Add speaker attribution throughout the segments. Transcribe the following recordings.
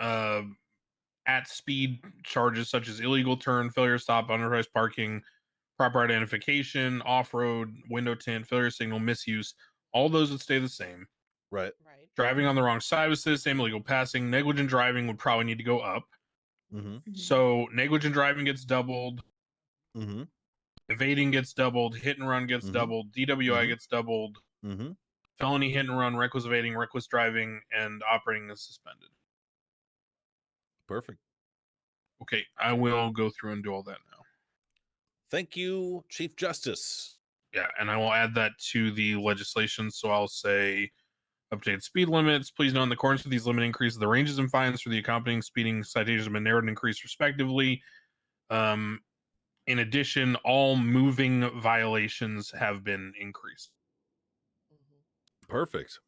Speaker 1: uh, at speed charges such as illegal turn, failure to stop, underpriced parking, proper identification, off road, window tint, failure signal, misuse, all those would stay the same.
Speaker 2: Right.
Speaker 3: Right.
Speaker 1: Driving on the wrong side would stay the same, illegal passing, negligent driving would probably need to go up.
Speaker 2: Mm-hmm.
Speaker 1: So negligent driving gets doubled,
Speaker 2: Mm-hmm.
Speaker 1: evading gets doubled, hit and run gets
Speaker 2: Mhm.
Speaker 1: doubled, DWI
Speaker 2: Mhm.
Speaker 1: gets doubled,
Speaker 2: Mm-hmm.
Speaker 1: felony hit and run, reckless evading, reckless driving, and operating is suspended.
Speaker 2: Perfect.
Speaker 1: Okay, I will go through and do all that now.
Speaker 2: Thank you, Chief Justice.
Speaker 1: Yeah, and I will add that to the legislation. So I'll say update speed limits. Please note in the accordance with these limit increases, the ranges and fines for the accompanying speeding citations have been narrowed and increased respectively. Um, in addition, all moving violations have been increased.
Speaker 3: Mhm.
Speaker 2: Perfect.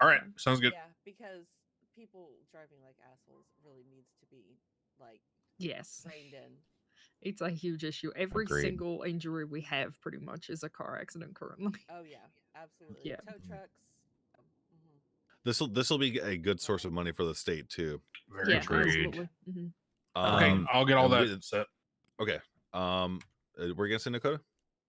Speaker 1: All right, sounds good.
Speaker 3: Yeah, because people driving like assholes really needs to be like
Speaker 4: Yes.
Speaker 3: reined in.
Speaker 4: It's a huge issue. Every
Speaker 5: Agreed.
Speaker 4: single injury we have pretty much is a car accident currently.
Speaker 3: Oh yeah, absolutely.
Speaker 4: Yeah.
Speaker 3: Tow trucks. Um, mhm.
Speaker 2: This will this will be a good source of money for the state too.
Speaker 1: Very
Speaker 4: yeah,
Speaker 1: agreed.
Speaker 5: agreed.
Speaker 4: absolutely. Mhm.
Speaker 1: Okay,
Speaker 5: Um,
Speaker 1: I'll get all
Speaker 2: and
Speaker 1: that
Speaker 2: we-
Speaker 1: set.
Speaker 2: Um, uh, we're gonna say Dakota.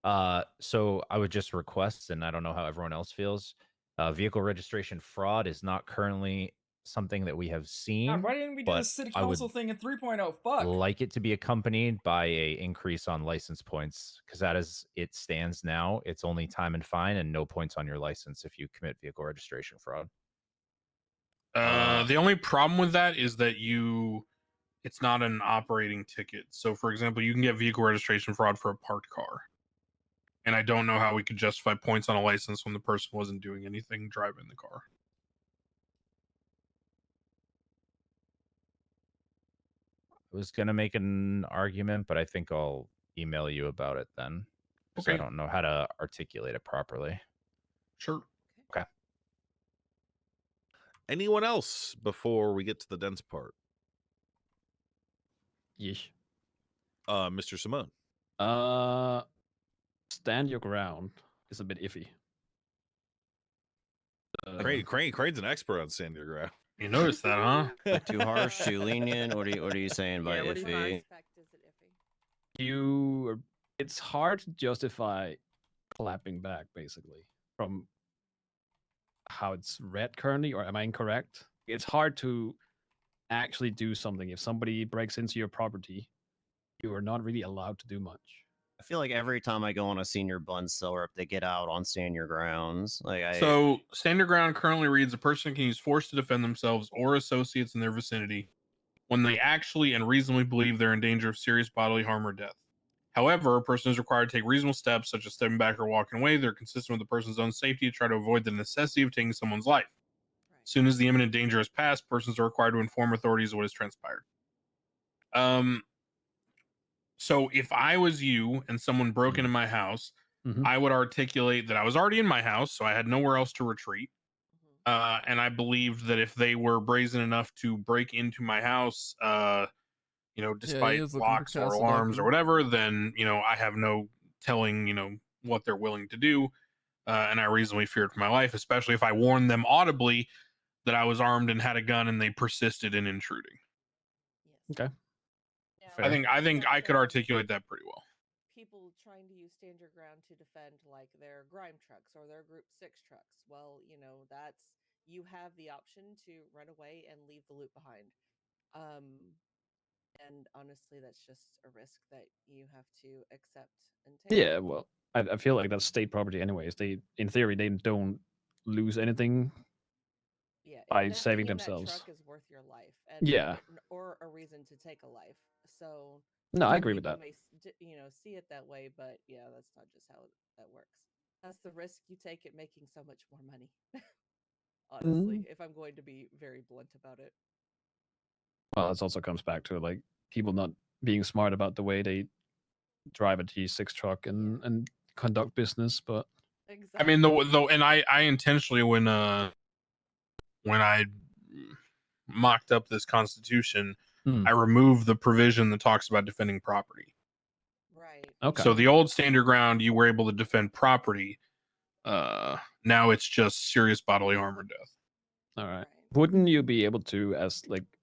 Speaker 5: Uh, so I would just request, and I don't know how everyone else feels. Uh, vehicle registration fraud is not currently something that we have seen.
Speaker 6: God, why didn't we do
Speaker 5: but
Speaker 6: the city
Speaker 5: I would
Speaker 6: council thing in 3.0? Fuck.
Speaker 5: like it to be accompanied by a increase on license points because that is it stands now it's only time and fine and no points on your license if you commit vehicle registration fraud
Speaker 1: Uh, the only problem with that is that you, it's not an operating ticket. So, for example, you can get vehicle registration fraud for a parked car, and I don't know how we could justify points on a license when the person wasn't doing anything driving the car.
Speaker 5: i was going to make an argument but i think i'll email you about it then 'cause i
Speaker 1: Okay.
Speaker 5: don't know how to articulate it properly
Speaker 1: Sure.
Speaker 2: Anyone else before we get to the dense part?
Speaker 7: Yeesh.
Speaker 2: Uh, Mr. Simone.
Speaker 7: Uh, stand your ground is a bit iffy. Uh,
Speaker 2: Crane, Crane, Crane's an expert on San Diego. Ground.
Speaker 1: You noticed that, huh?
Speaker 8: Like, too harsh, too lenient. What are you, what are you saying by
Speaker 4: Yeah, what do you
Speaker 3: From our
Speaker 8: iffy?
Speaker 3: aspect, is it iffy?
Speaker 7: You, are- it's hard to justify clapping back, basically, from how it's read currently. Or am I incorrect? It's hard to actually do something if somebody breaks into your property. You are not really allowed to do much.
Speaker 8: I feel like every time I go on a senior bun seller up, they get out on stand your grounds. Like I
Speaker 1: So, standard ground currently reads a person can use force to defend themselves or associates in their vicinity when they actually and reasonably believe they're in danger of serious bodily harm or death. However, a person is required to take reasonable steps such as stepping back or walking away. They're consistent with the person's own safety to try to avoid the necessity of taking someone's life.
Speaker 3: Right.
Speaker 1: As soon as the imminent danger has passed, persons are required to inform authorities of what has transpired. Um, so if I was you and someone broke into my house,
Speaker 7: Mhm.
Speaker 9: Mm-hmm.
Speaker 1: I would articulate that I was already in my house, so I had nowhere else to retreat.
Speaker 3: Mhm.
Speaker 9: Mm-hmm.
Speaker 1: Uh, and I believed that if they were brazen enough to break into my house, uh, you know, despite
Speaker 9: is looking for
Speaker 1: locks or
Speaker 9: Castle
Speaker 1: alarms or
Speaker 9: Duncan.
Speaker 1: whatever, then you know I have no telling, you know, what they're willing to do. Uh, and I reasonably feared for my life, especially if I warned them audibly that I was armed and had a gun, and they persisted in intruding.
Speaker 3: Yes.
Speaker 7: Okay.
Speaker 3: Now,
Speaker 7: Fair.
Speaker 1: I think I think
Speaker 3: Yeah,
Speaker 1: I could
Speaker 3: so
Speaker 1: articulate that pretty well.
Speaker 3: People trying to use stand your ground to defend like their grime trucks or their group six trucks. Well, you know, that's you have the option to run away and leave the loot behind. Um and honestly that's just a risk that you have to accept and take.
Speaker 7: Yeah, well, I, I feel like that's state property, anyways. They, in theory, they don't lose anything
Speaker 3: yeah, it-
Speaker 7: by
Speaker 3: not
Speaker 7: saving
Speaker 3: taking that
Speaker 7: themselves.
Speaker 3: truck is worth your life, and
Speaker 7: Yeah.
Speaker 3: n- or a reason to take a life. So
Speaker 7: No, I
Speaker 3: some
Speaker 7: agree with
Speaker 3: people
Speaker 7: that.
Speaker 3: May, s- d- you know, see it that way, but yeah, that's not just how that works. That's the risk you take at making so much more money. Honestly,
Speaker 7: Mm-hmm.
Speaker 3: if I'm going to be very blunt about it,
Speaker 7: Well, this also comes back to like people not being smart about the way they drive a T6 truck and and conduct business. But
Speaker 3: exactly.
Speaker 1: I mean, the though, and I I intentionally when uh when I mocked up this constitution,
Speaker 7: Hmm.
Speaker 1: I removed the provision that talks about defending property.
Speaker 3: right?
Speaker 7: okay,
Speaker 1: So the old standard ground, you were able to defend property. Uh, now it's just serious bodily harm or death.
Speaker 7: all right.
Speaker 3: right.
Speaker 7: Wouldn't you be able to, as like